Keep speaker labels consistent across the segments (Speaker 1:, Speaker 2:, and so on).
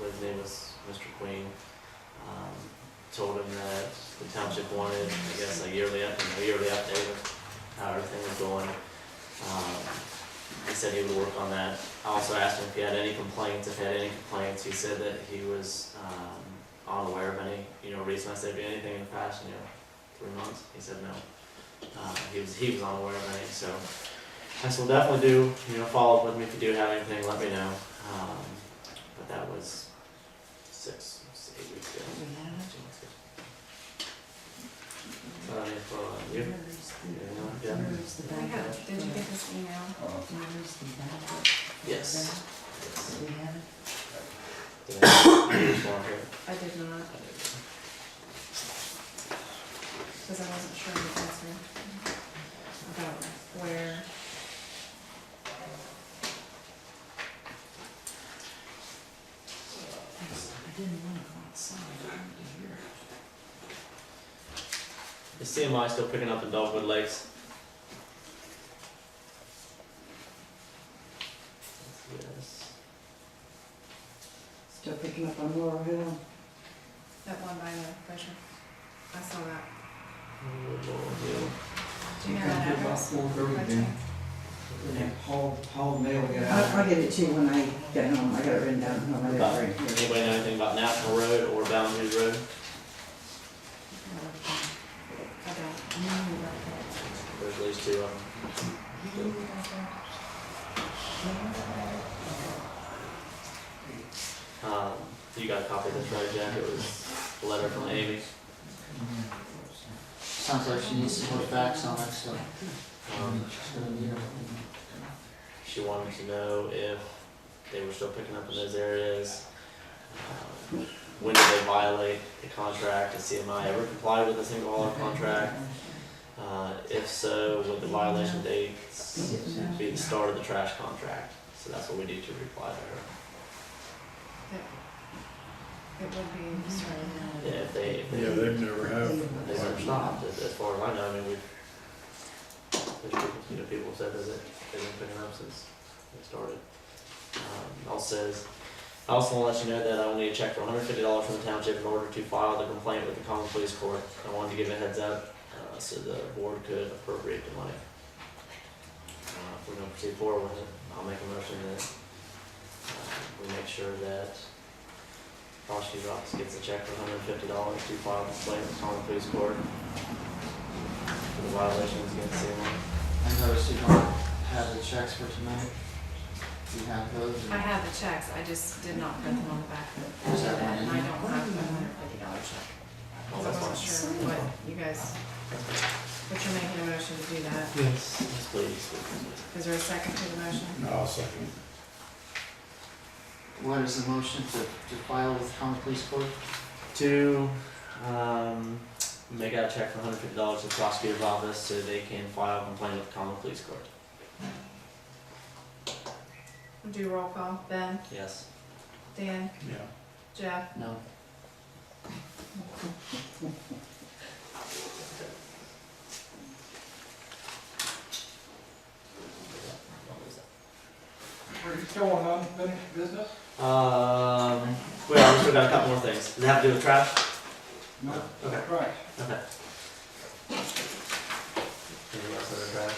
Speaker 1: his name is Mr. Queen, um, told him that the township wanted, I guess, a yearly, up- a yearly update of how everything was going. Um, He said he would work on that. I also asked him if he had any complaints, if he had any complaints, he said that he was, um, unaware of any, you know, reason I said anything in the past, you know, three months, he said no. Uh, he was, he was unaware of any, so, I said, "Well, definitely do, you know, follow up with me if you do have anything, let me know. Um, but that was six, s- eight weeks ago. Two months ago. So, I mean, for, uh, you, you know, yeah,
Speaker 2: I have, did you get this email?
Speaker 1: yes.
Speaker 3: We have it.
Speaker 1: Did I- you respond here?
Speaker 2: I did not,
Speaker 1: I didn't.
Speaker 2: because I wasn't sure of the answer about where.
Speaker 3: I didn't want to go outside, I wanted to hear.
Speaker 1: Is CMI still picking up in Dogwood Lakes? Yes.
Speaker 3: Still picking up on Laurel Hill.
Speaker 2: That one by the pressure. I saw that.
Speaker 1: Oh,
Speaker 2: Do you know that address? By chance?
Speaker 4: Paul, Paul Mail, we
Speaker 3: I'll, I'll give it to you when I get home, I got it written down at home, I
Speaker 1: Lord,
Speaker 3: got
Speaker 1: Lord.
Speaker 3: it
Speaker 1: About-
Speaker 3: right here.
Speaker 1: Anybody know anything about National Road or Boundaries Road?
Speaker 2: I don't.
Speaker 1: There's at least two um, of them. Um, you got a copy of this, right, Jack? It was a letter from Amy.
Speaker 5: Sounds like she needs some more facts on that stuff.
Speaker 1: Um,
Speaker 5: She's gonna need them.
Speaker 1: She wanted to know if they were still picking up in those areas. Um, When did they violate the contract? Did CMI ever comply with the single hauler contract? Uh, if so, would the violation dates be the start of the trash contract? So that's what we need to reply to
Speaker 2: It would be starting now.
Speaker 1: her. Yeah, if they, if they,
Speaker 6: Yeah, they've never have.
Speaker 1: they never stopped, as, as far as I know, I mean, we've, there's people, you know, people have said that it- they've been picking up since it started. Um, also says, I also wanna let you know that I will need a check for hundred fifty dollars from the township in order to file the complaint with the common police court. I wanted to give a heads up, uh, so the board could appropriate the money. Uh, if we're gonna proceed forward with it, I'll make a motion that, uh, we make sure that prosecutor's office gets a check for hundred and fifty dollars to file a complaint with common police court for the violations against CMI.
Speaker 5: I noticed you don't have the checks for tonight. Do you have those?
Speaker 2: I have the checks, I just did not put them on the back.
Speaker 5: Is that one in
Speaker 2: And I
Speaker 5: there?
Speaker 2: don't have the hundred fifty dollar check.
Speaker 1: Oh,
Speaker 2: Because I
Speaker 1: that's
Speaker 2: wasn't
Speaker 1: fine.
Speaker 2: sure what you guys, but you're making a motion to do that.
Speaker 1: Yes. Yes, please.
Speaker 2: Is there a second to the motion?
Speaker 6: No, I'll second.
Speaker 5: What is the motion to, to file with common police court?
Speaker 1: To, um, make out a check for hundred fifty dollars to the prosecutor's office so they can file a complaint with the common police court.
Speaker 2: Do roll call, Ben,
Speaker 1: Yes.
Speaker 2: Dan,
Speaker 6: Yeah.
Speaker 2: Jeff,
Speaker 5: No.
Speaker 4: Are you still on unfinished business?
Speaker 1: Um, well, we still got a couple more things. Does it have to do with trash?
Speaker 4: No.
Speaker 1: Okay.
Speaker 4: Right.
Speaker 1: Okay. Anything else on the track?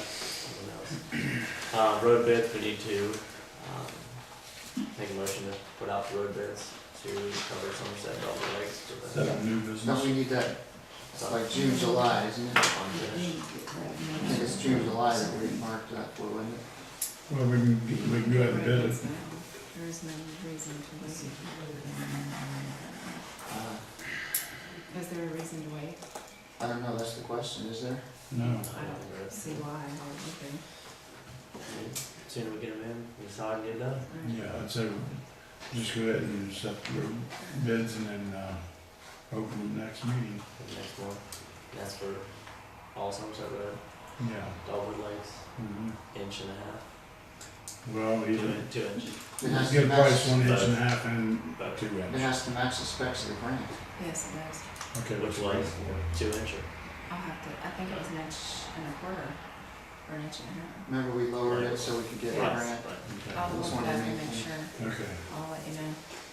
Speaker 1: Anything else? Uh, road bids, we need to, um, make a motion to put out the road bids to cover Somerset and Delaware Lakes to
Speaker 6: Is
Speaker 1: the.
Speaker 6: that a new
Speaker 5: Don't we
Speaker 6: business?
Speaker 5: need that, it's like June, July, isn't it? I think it's June, July that we marked that for, wasn't it?
Speaker 6: Well, we can, we can go ahead and bid it.
Speaker 2: there is no reason to wait.
Speaker 5: Uh,
Speaker 2: Is there a reason to wait?
Speaker 5: I don't know, that's the question, is there?
Speaker 6: No.
Speaker 1: I don't think there is.
Speaker 2: See why, or
Speaker 1: Sooner we get them in, we decide and get it done.
Speaker 2: anything.
Speaker 6: Yeah, I'd say just go ahead and set the bids and then, uh, open the next meeting.
Speaker 1: for the next one. That's for all Somerset Road,
Speaker 6: Yeah.
Speaker 1: Dogwood Lakes,
Speaker 6: Mhm.
Speaker 1: inch and a half,
Speaker 6: Well,
Speaker 1: two
Speaker 6: either,
Speaker 1: in- two inch.
Speaker 5: It has to
Speaker 6: get a price
Speaker 5: match-
Speaker 6: one inch and a half and
Speaker 1: Both.
Speaker 6: two
Speaker 5: It
Speaker 6: inch.
Speaker 5: has to match the specs of the grant.
Speaker 2: Yes, it does.
Speaker 6: Okay.
Speaker 1: Which
Speaker 6: that's
Speaker 1: one?
Speaker 6: right.
Speaker 1: Two inch or?
Speaker 2: I'll have to, I think it was an inch and a quarter, or an inch and
Speaker 5: Remember, we lowered it so we could get the
Speaker 1: Right,
Speaker 5: grant?
Speaker 1: right.
Speaker 2: a half. I'll
Speaker 5: This
Speaker 2: look
Speaker 5: one
Speaker 2: at it
Speaker 5: I
Speaker 2: and
Speaker 5: made.
Speaker 2: make sure,
Speaker 6: Okay. Okay.
Speaker 2: I'll let you know.